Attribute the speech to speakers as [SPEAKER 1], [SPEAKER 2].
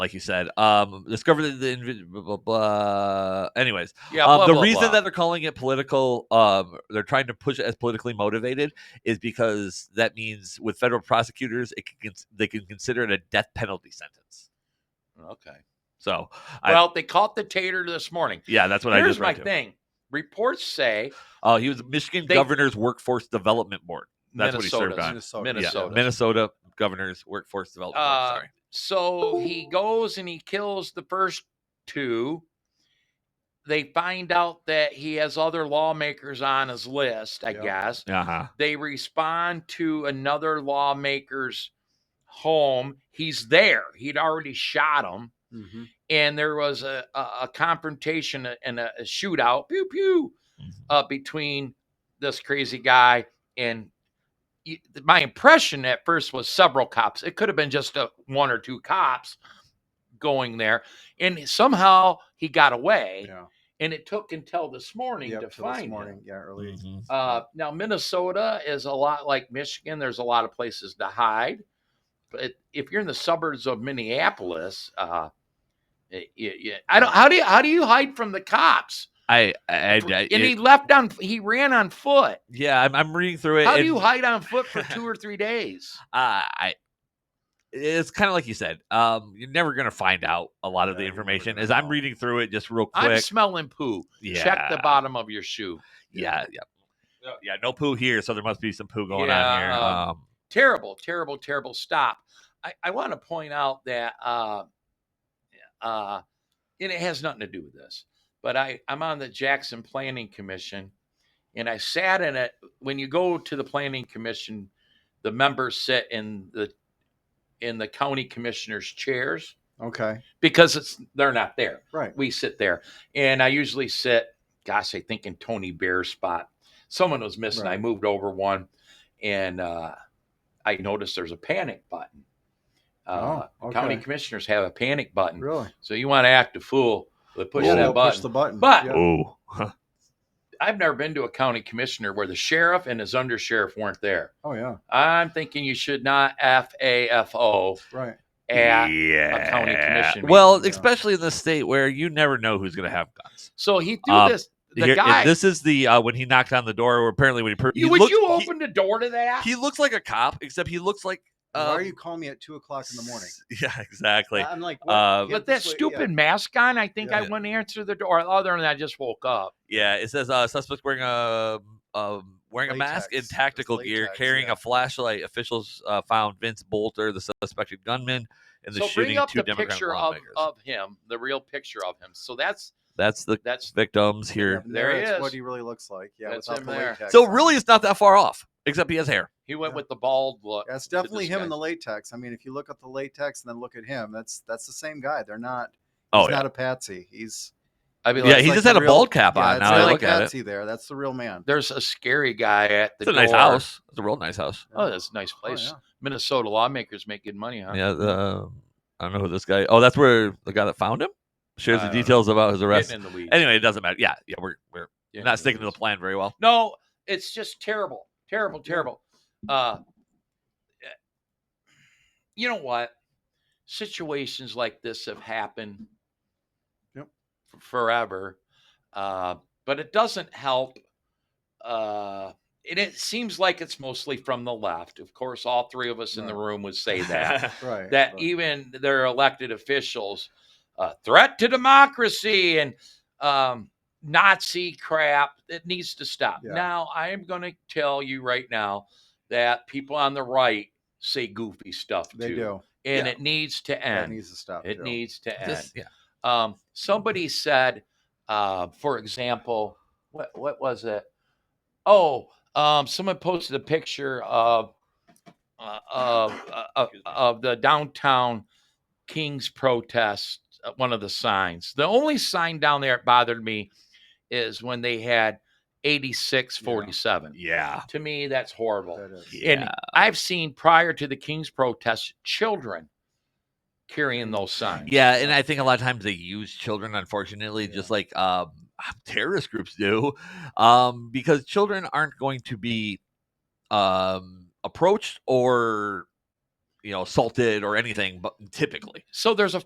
[SPEAKER 1] like you said. Um, discovered that the invi- blah, blah, blah. Anyways,
[SPEAKER 2] Yeah.
[SPEAKER 1] um,
[SPEAKER 2] blah,
[SPEAKER 1] the
[SPEAKER 2] blah,
[SPEAKER 1] reason
[SPEAKER 2] blah.
[SPEAKER 1] that they're calling it political, um, they're trying to push it as politically motivated, is because that means with federal prosecutors, it can, cons- they can consider it a death penalty sentence.
[SPEAKER 2] Okay.
[SPEAKER 1] So, I-
[SPEAKER 2] Well, they caught the tater this morning.
[SPEAKER 1] yeah, that's what I
[SPEAKER 2] Here's
[SPEAKER 1] just
[SPEAKER 2] my
[SPEAKER 1] read. too.
[SPEAKER 2] thing. Reports say
[SPEAKER 1] Oh, he was Michigan
[SPEAKER 2] They-
[SPEAKER 1] Governor's Workforce Development Board. That's what he served
[SPEAKER 2] Minnesota's.
[SPEAKER 1] on.
[SPEAKER 3] Minnesota.
[SPEAKER 1] Yeah,
[SPEAKER 2] Oh, Minnesota.
[SPEAKER 1] Minnesota Governor's Workforce Development
[SPEAKER 2] Uh,
[SPEAKER 1] Board. Sorry.
[SPEAKER 2] So he goes and he kills the first two. They find out that he has other lawmakers on his list, I
[SPEAKER 3] Yep.
[SPEAKER 2] guess.
[SPEAKER 1] Uh huh.
[SPEAKER 2] They respond to another lawmaker's home. He's there. He'd already shot him.
[SPEAKER 3] Mhm.
[SPEAKER 2] And there was a, a, a confrontation and a, a shootout, pew, pew,
[SPEAKER 3] Mm-hmm.
[SPEAKER 2] uh, between this crazy guy and y- my impression at first was several cops. It could have been just a, one or two cops going there, and somehow he got away.
[SPEAKER 3] Yeah.
[SPEAKER 2] And it took until this morning
[SPEAKER 3] Yep,
[SPEAKER 2] to
[SPEAKER 3] till this
[SPEAKER 2] find
[SPEAKER 3] morning.
[SPEAKER 2] him.
[SPEAKER 3] Yeah, early.
[SPEAKER 2] Uh, now Minnesota is a lot like Michigan. There's a lot of places to hide, but if you're in the suburbs of Minneapolis, uh, y- y- y- I don't. How do you how do you hide from the cops?
[SPEAKER 1] I, I, I,
[SPEAKER 2] and
[SPEAKER 1] I-
[SPEAKER 2] he left on. He ran on foot.
[SPEAKER 1] yeah, I'm, I'm reading through it.
[SPEAKER 2] How do
[SPEAKER 1] and-
[SPEAKER 2] you hide on foot for two or three days?
[SPEAKER 1] uh, I it's kind of like you said. Um, you're never gonna find out a lot of
[SPEAKER 3] Yeah,
[SPEAKER 1] the
[SPEAKER 3] you're never
[SPEAKER 1] information.
[SPEAKER 3] gonna
[SPEAKER 1] As I'm
[SPEAKER 3] know.
[SPEAKER 1] reading through it, just real
[SPEAKER 2] I'm
[SPEAKER 1] quick.
[SPEAKER 2] smelling poo.
[SPEAKER 1] Yeah,
[SPEAKER 2] Check the bottom of your shoe.
[SPEAKER 1] Yeah, yeah, yeah, yeah. No poo here, so there must be some poo going on here.
[SPEAKER 2] Yeah.
[SPEAKER 1] Um,
[SPEAKER 2] Terrible, terrible, terrible stop. I, I want to point out that, uh, uh, and it has nothing to do with this, but I, I'm on the Jackson Planning Commission and I sat in it. When you go to the Planning Commission, the members sit in the in the county commissioner's chairs
[SPEAKER 3] Okay.
[SPEAKER 2] because it's they're not there.
[SPEAKER 3] Right.
[SPEAKER 2] we sit there and i usually sit gosh i think in tony bear's spot someone was missing i
[SPEAKER 3] Right.
[SPEAKER 2] moved over one and uh, i noticed there's a panic button uh,
[SPEAKER 3] Oh,
[SPEAKER 2] county
[SPEAKER 3] okay.
[SPEAKER 2] commissioners have a panic button
[SPEAKER 3] Really?
[SPEAKER 2] so you want to act a fool but push
[SPEAKER 3] Yeah,
[SPEAKER 2] that
[SPEAKER 3] they'll
[SPEAKER 2] button
[SPEAKER 3] Push the button.
[SPEAKER 2] But-
[SPEAKER 3] yeah.
[SPEAKER 1] Oh,
[SPEAKER 2] i've never been to a county commissioner where the sheriff and his undersheriff weren't there
[SPEAKER 3] oh yeah.
[SPEAKER 2] i'm thinking you should not f-a-f-o
[SPEAKER 3] Right.
[SPEAKER 2] at
[SPEAKER 1] yeah.
[SPEAKER 2] county commission
[SPEAKER 1] Well,
[SPEAKER 3] meeting, yeah.
[SPEAKER 1] especially in the state where you never know who's gonna have guns.
[SPEAKER 2] so he threw
[SPEAKER 1] Um,
[SPEAKER 2] this the
[SPEAKER 1] Here- if
[SPEAKER 2] guy
[SPEAKER 1] this is the uh, when he knocked on the door. Where apparently when he, per-
[SPEAKER 2] you,
[SPEAKER 1] he
[SPEAKER 2] would
[SPEAKER 1] looked-
[SPEAKER 2] you
[SPEAKER 1] he-
[SPEAKER 2] open the door to that
[SPEAKER 1] He, looks like a cop, except he looks like. Um,
[SPEAKER 3] Why are you calling me at two o'clock in the morning?
[SPEAKER 1] Yeah, exactly.
[SPEAKER 3] I'm like,
[SPEAKER 1] uh,
[SPEAKER 3] Get
[SPEAKER 2] But that
[SPEAKER 3] this way-
[SPEAKER 2] stupid mask on, I think I
[SPEAKER 1] Yeah.
[SPEAKER 2] went answer the door. Other than I just woke up.
[SPEAKER 1] Yeah, it says uh, suspect wearing a um, wearing a mask in
[SPEAKER 3] Latex. It's
[SPEAKER 1] tactical gear,
[SPEAKER 3] latex,
[SPEAKER 1] carrying
[SPEAKER 3] yeah.
[SPEAKER 1] a flashlight. Officials uh, found Vince Bolter, the suspected gunman, in the
[SPEAKER 2] so
[SPEAKER 1] shooting.
[SPEAKER 2] bring up
[SPEAKER 1] two
[SPEAKER 2] the
[SPEAKER 1] Democrat
[SPEAKER 2] picture of,
[SPEAKER 1] lawmakers.
[SPEAKER 2] of him, the real picture of him. So that's
[SPEAKER 1] That's the
[SPEAKER 2] that's
[SPEAKER 1] victims
[SPEAKER 3] Yeah,
[SPEAKER 1] here.
[SPEAKER 3] from
[SPEAKER 2] There he
[SPEAKER 3] it's
[SPEAKER 2] is.
[SPEAKER 3] What he really looks like. Yeah.
[SPEAKER 2] That's
[SPEAKER 3] without
[SPEAKER 2] him
[SPEAKER 3] the
[SPEAKER 2] there.
[SPEAKER 3] latex
[SPEAKER 1] So
[SPEAKER 3] on.
[SPEAKER 1] really, it's not that far off, except he has hair.
[SPEAKER 2] he went
[SPEAKER 3] Yeah.
[SPEAKER 2] with the bald look.
[SPEAKER 3] Yeah, it's definitely
[SPEAKER 2] this
[SPEAKER 3] him
[SPEAKER 2] guy.
[SPEAKER 3] in the latex. I mean, if you look at the latex and then look at him, that's that's the same guy. They're not.
[SPEAKER 1] Oh
[SPEAKER 3] he's
[SPEAKER 1] yeah,
[SPEAKER 3] not a patsy. He's
[SPEAKER 2] I mean,
[SPEAKER 1] yeah.
[SPEAKER 2] like,
[SPEAKER 1] He
[SPEAKER 3] like
[SPEAKER 1] just
[SPEAKER 3] the
[SPEAKER 1] had a
[SPEAKER 3] real-
[SPEAKER 1] bald cap
[SPEAKER 3] yeah,
[SPEAKER 1] on.
[SPEAKER 3] it's
[SPEAKER 1] Now
[SPEAKER 3] not
[SPEAKER 1] I
[SPEAKER 3] a
[SPEAKER 1] look at it.
[SPEAKER 3] patsy there. That's the real man.
[SPEAKER 2] there's a scary guy at the
[SPEAKER 1] It's a
[SPEAKER 2] door.
[SPEAKER 1] nice house. It's a real nice house.
[SPEAKER 2] Oh, that's a nice
[SPEAKER 3] Oh,
[SPEAKER 2] place.
[SPEAKER 3] yeah.
[SPEAKER 2] Minnesota lawmakers make good money, huh?
[SPEAKER 1] Yeah. um, I don't know who this guy. Oh, that's where the guy that found him shares
[SPEAKER 2] I
[SPEAKER 1] the
[SPEAKER 2] don't know.
[SPEAKER 1] details about his arrest.
[SPEAKER 2] Getting in the weeds.
[SPEAKER 1] Anyway, it doesn't matter. Yeah, yeah. We're we're
[SPEAKER 2] Getting in
[SPEAKER 1] not sticking to the
[SPEAKER 2] weeds.
[SPEAKER 1] plan very well.
[SPEAKER 2] No, it's just terrible, terrible, terrible. Uh, you know what? Situations like this have happened
[SPEAKER 3] Yep.
[SPEAKER 2] f- forever, uh, but it doesn't help. Uh, and it seems like it's mostly from the left. Of course, all three of us in the room would say that
[SPEAKER 3] Right.
[SPEAKER 2] that
[SPEAKER 3] right.
[SPEAKER 2] even their elected officials uh, threat to democracy and um, Nazi crap. It needs to stop.
[SPEAKER 3] Yeah.
[SPEAKER 2] Now, I am going to tell you right now that people on the right say goofy stuff
[SPEAKER 3] they
[SPEAKER 2] too,
[SPEAKER 3] do.
[SPEAKER 2] and
[SPEAKER 1] Yeah.
[SPEAKER 2] it needs to
[SPEAKER 3] That
[SPEAKER 2] end.
[SPEAKER 3] needs to stop.
[SPEAKER 2] it
[SPEAKER 3] too.
[SPEAKER 2] needs to end.
[SPEAKER 1] Just- yeah.
[SPEAKER 2] um, somebody said, uh, for example, what what was it? Oh, um, someone posted a picture of uh, of uh, of, of the downtown Kings protest. uh, One of the signs. The only sign down there that bothered me is when they had eighty six forty seven.
[SPEAKER 1] Yeah.
[SPEAKER 2] To me, that's horrible.
[SPEAKER 3] That is.
[SPEAKER 2] And I've seen prior to the Kings protest children carrying those signs.
[SPEAKER 1] Yeah, and I think a lot of times they use children, unfortunately,
[SPEAKER 3] Yeah.
[SPEAKER 1] just like um, terrorist groups do, um, because children aren't going to be um, approached or you know assaulted or anything, but typically.
[SPEAKER 2] So there's a